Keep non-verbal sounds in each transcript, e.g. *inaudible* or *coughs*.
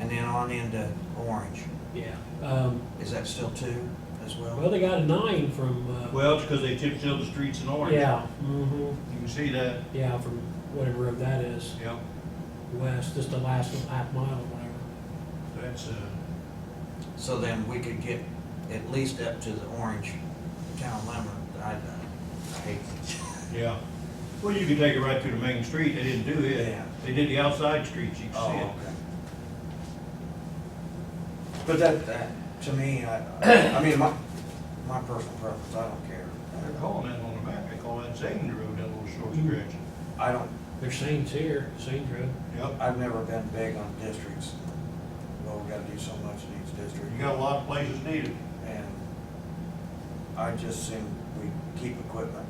and then on into Orange. Yeah, um, Is that still two as well, well? they got a nine from, uh, Well, it's because they tipped the streets in orange. yeah, mhm, You can see that, yeah, from whatever road that is, yeah, west, just the last half mile or whatever. that's, uh, So then we could get at least up to the Orange town limit. I, I hate yeah. Well, you could take it right through the main street, they didn't do it. Yeah. Oh, They did the outside streets, you can see it. But that, that, to me, I, I mean, my, my personal preference, I don't care. They're calling that on the map, they call that Zayden Road, that little short stretch. I don't, There's Saints here, Saints Road. Yep, I've never been big on districts. Well, we gotta do so much in each district. you got a lot of places needed. And I just think we keep equipment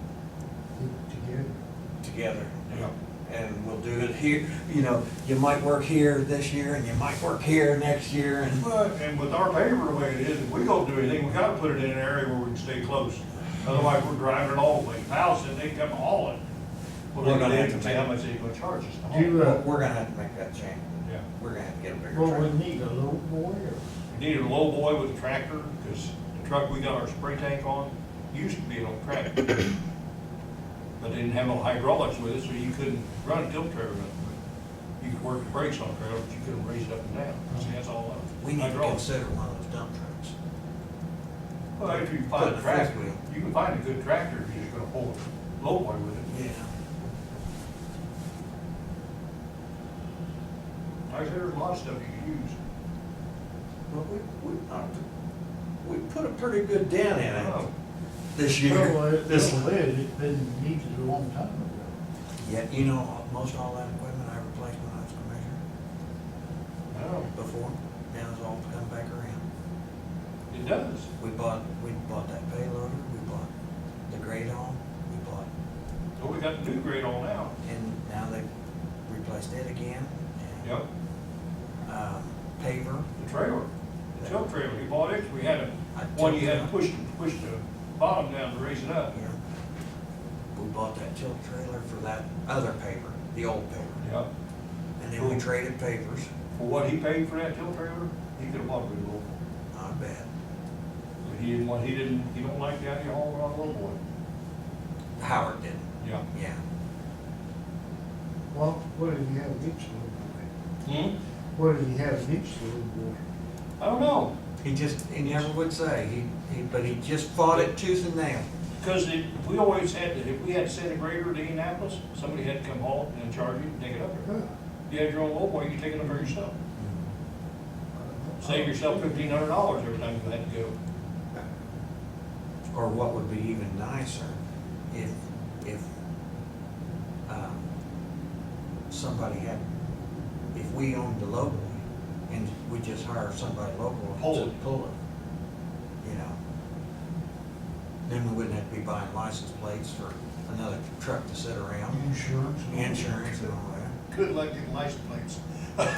together. Yeah. And we'll do it here, you know, you might work here this year and you might work here next year and. But, and with our paper the way it is, if we don't do anything, we gotta put it in an area where we can stay close. Otherwise, we're driving it all the way, house, and they come hauling. We're Well, they're gonna gonna have have to to say how make- much they gonna charge us to Do you, haul. uh, We're gonna have to make that change. Yeah. We're gonna have to get a bigger well, we truck. need a little boy or? We needed a low boy with a tractor, because the truck we got our spray tank on used to be an *coughs* old tractor. But they didn't have no hydraulics with it, so you couldn't run a tilt trailer. with it. You could work the brakes on a trailer, but you couldn't raise it up and down. See, that's all uh, We need to hydraulics. consider one of those dump trucks. Well, after you Put find the a fifth tractor, wheel. you can find a good tractor if you're just gonna pull a low boy with it. Yeah. Like I said, there's a lot of stuff you can use. But we, we, uh, we put a pretty good dent in I it know. this year. Oh. Well, it- This- well, it- It's been needed a long time ago. Yeah, you know, most all that equipment I replaced when I was commissioner I know. before, now it's all come back around. It does. We bought, we bought that payloader, we bought the grade on, we bought, So we got the new grade on now. and now they replaced it again. and, Yep. Um, paver. the trailer, the tilt trailer, we bought it, we had a, I one you tilt had to it. push, push the bottom down to raise it up. Yeah. We bought that tilt trailer for that other paper, the old paper, Yeah. and then we traded papers, For what he paid for that tilt trailer, he could have bought a good little, one. I bet. but he didn't want, he didn't, he don't like the idea of hauling on a little boy. Howard didn't, Yeah. yeah. Well, what did he have against the little boy? Hmm? What did he have against the little boy? I don't know, He just, he never would say, he, he, but he just fought it tooth and nail. because it, we always had, to- if we had sent a grader to Indianapolis, somebody had to come haul it and charge you to take it up there. Huh. You had your own little boy, you take it up there yourself, save yourself fifteen hundred dollars every time you had to go. Or what would be even nicer, if, if, um, somebody had, if we owned the lowboy, and we just hired somebody local Pull to it. pull it, you know? Then we wouldn't have to be buying license plates for another truck to sit around, Insurance. insurance and all that. Good luck getting license *laughs* plates.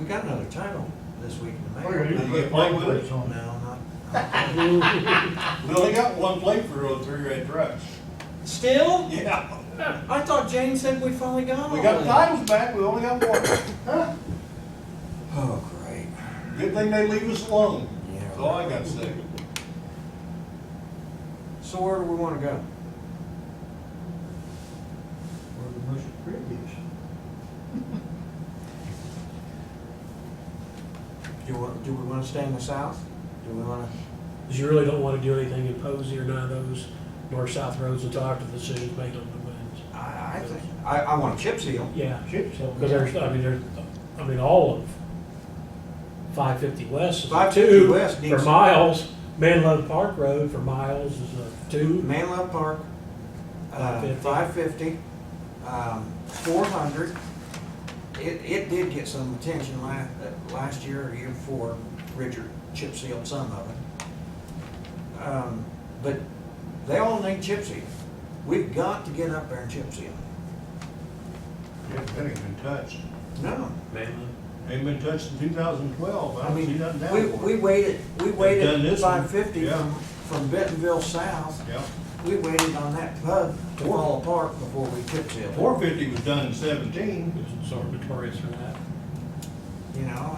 We got another title this week in the We're gonna mail. need to Put get white white wood. plates No, *laughs* on that. not, *laughs* We only got one plate for those three red trucks. Still? *laughs* Yeah. I thought Jane said we finally got We all got of the them. titles back, we only got one. Oh, great. Good thing they leave us alone. Yeah. That's all I gotta say. So where do we wanna go? Or the most prettiest. Do we, do we wanna stay in the south? Do we wanna? Cause you really don't wanna do anything in Posey or none of those north-south roads until after the decision's made on the winds. I, I think, I, I want chip seal. Yeah, Chip seal. cause there's, I mean, there's, I mean, all of five fifty west is a 550 two West for needs- miles. Manlow Park Road for miles is a two. Manlow Park, uh, 550. five fifty, um, four hundred. It, it did get some attention la, uh, last year or year before, Richard chip sealed some of it. Um, but they all need chip seal. We've got to get up there and chip seal. Yeah, they ain't been touched. No, Manlow. Ain't been touched in two thousand and twelve, I mean, we, we waited, we done waited this one, five fifty yeah. from, from Bentonville south. Yeah, We waited on that pub to fall apart before we chip sealed, four fifty was done in seventeen. It's sort of notorious for that. you know?